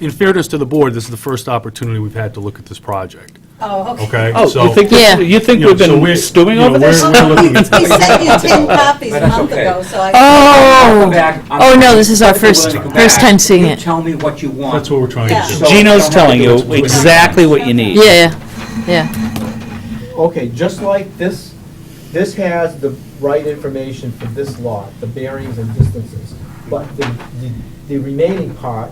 in fairness to the board, this is the first opportunity we've had to look at this project, Oh, okay. okay? Oh, you So- think, Yeah. this- you think you know, we've so been we're- stewing you know, over this? we're- we're looking at We this. sent you 10 copies a But that's month okay. ago, so I... Oh, oh, no, this is our If you're first, willing to go first back, time seeing you it. Tell me what you want. That's what we're trying Yeah. to do. So- Gino's Don't have to telling do you it to exactly what you need. Yeah, yeah, yeah, Okay, just like this, this has the right information for this lot, the bearings and distances. But the, the- the remaining part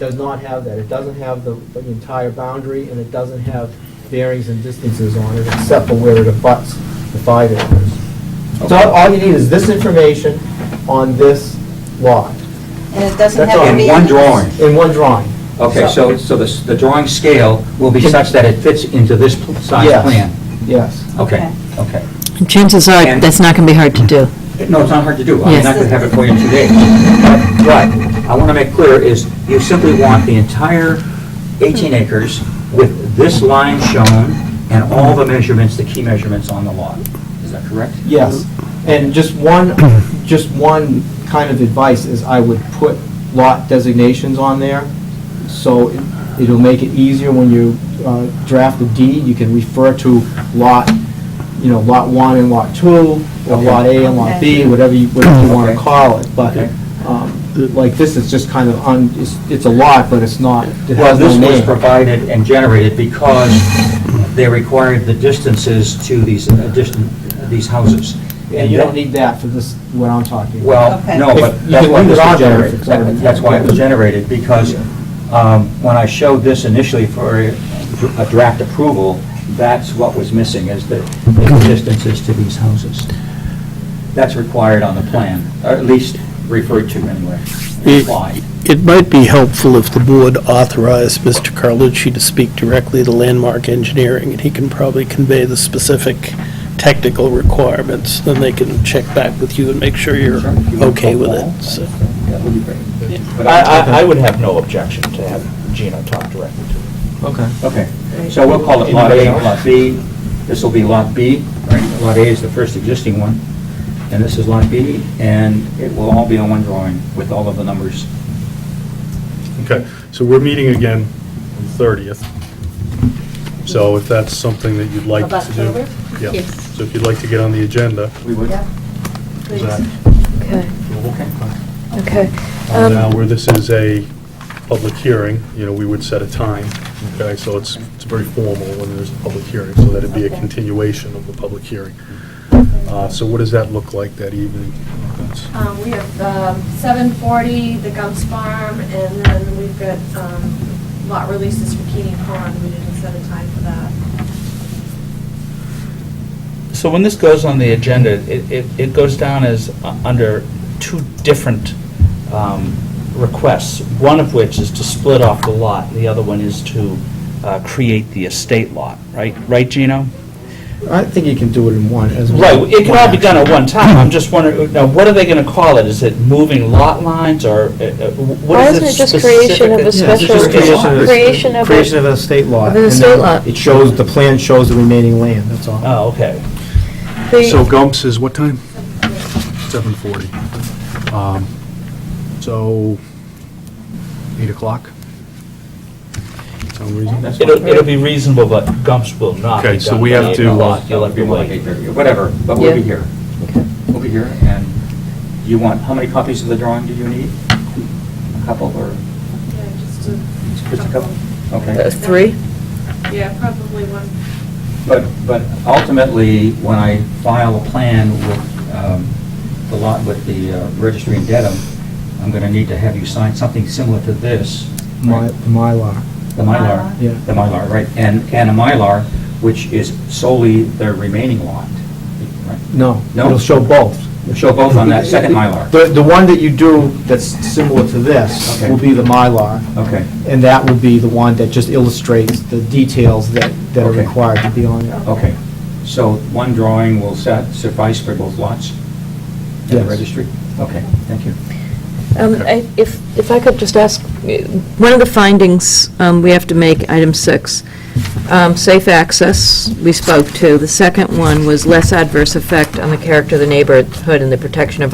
does not have that. It doesn't have the, the entire boundary and it doesn't have bearings and distances on it except for where it abuts the five acres. So all you need is this information on this lot And it doesn't That's have all. to In be... one drawing. in one drawing. Okay, so, so the, s- the drawing scale will be such that it fits into this pl- size Yes. plan? Yes. Okay, okay. chances are, that's not gonna be hard to do. No, it's not hard to do. I'm Yes. not going to have it for you in two days. But what I want to make clear is you simply want the entire 18 acres with this line shown and all the measurements, the key measurements on the lot. Is that correct? Yes, and just one, just one kind of advice is I would put lot designations on there, so it- it'll make it easier when you uh, draft a deed, you can refer to lot, you know, lot one and lot two, or Okay. lot A and lot B, whatever you, whatever you want to Okay. call it, but Okay. um, like this, it's just kind of, un- it's it's a lot, but it's not, it Well, has no this was name. provided and generated because they required the distances to these addition, these houses. And you don't need that for this, what I'm talking about. Well, Okay. no, If but you that's can why it leave was it on there if generated. it's already- That- That's why it was generated, because um, when I showed this initially for a a draft approval, that's what was missing, is the the distances to these houses. That's required on the plan, or at least referred to anyway, implied. It might be helpful if the board authorized Mr. Carlucci to speak directly to Landmark Engineering, and he can probably convey the specific technical requirements, then they can check back with you and make sure you're Sure, if you want to okay go with along, it, so. That would be great. But I, I- I would have no objection to have Gino talk directly to him. Okay. Okay, so we'll call it Lot A, Lot B. This will be Lot B, right? Lot A is the first existing one, and this is Lot B, and it will all be on one drawing with all of the numbers. Okay, so we're meeting again on the 30th. So if that's something that you'd like Of to do. October? yeah. Yes. So if you'd like to get on the agenda, We would? Yeah, is please. that Okay, doable? Okay. okay. And Now, uh, where this is a public hearing, you know, we would set a time, okay? So it's, it's very formal when there's a public hearing, so that'd be a Okay. continuation of the public hearing. Uh, So what does that look like that evening? That's- Um, We have um, 740, the Gumps Farm, and then we've got um, lot releases for Keeney Pond. We didn't set a time for that. So when this goes on the agenda, it, it, it goes down as uh, under two different um, requests, one of which is to split off the lot, and the other one is to uh, create the estate lot, right? Right, Gino? I think you can do it in one as Right, well. it can all be done at one time, Mm-hmm. I'm just wondering, now, what are they gonna call it? Is it moving lot lines, or uh, uh, Why what is isn't it it just specific? creation of a Yeah, it's special, just creation of- creation of Creation a, of a state law. Of an and estate then lot. It shows, the plan shows the remaining land, that's all. Oh, okay. So the- Gumps is what time? 7:40. Um, So, 8 o'clock? Sound reasonable? That's It'll, fine. it'll be reasonable, but Gumps will not be done. Okay, so we by have eight to- uh, o'clock. You'll have It'll to be like wait. eight thirty, whatever, but we'll be Yeah. here. We'll be here, and you want, how many copies of the drawing do you need? A couple, or Yeah, just a just a couple? Okay. Uh, Three? Yeah, probably one. But, but ultimately, when I file a plan with um, the lot, with the uh, registry in Dedham, I'm going to need to have you sign something similar to this. My, right? Mylar, The Mylar. yeah. The Mylar, right, and, and a Mylar, which is solely the remaining lot. right? No, No? it'll show both. We'll show both on that second Mylar. The, the one that you do that's similar to this Okay. will be the Mylar, Okay, and that will be the one that just illustrates the details that, that are Okay. required to be on there. okay. So one drawing will set- suffice for both lots in the Yes. registry? Okay, thank you. Um, I- if, if I could just ask, uh, One of the findings um, we have to make, item six, um, safe access, we spoke to. The second one was less adverse effect on the character of the neighborhood and the protection of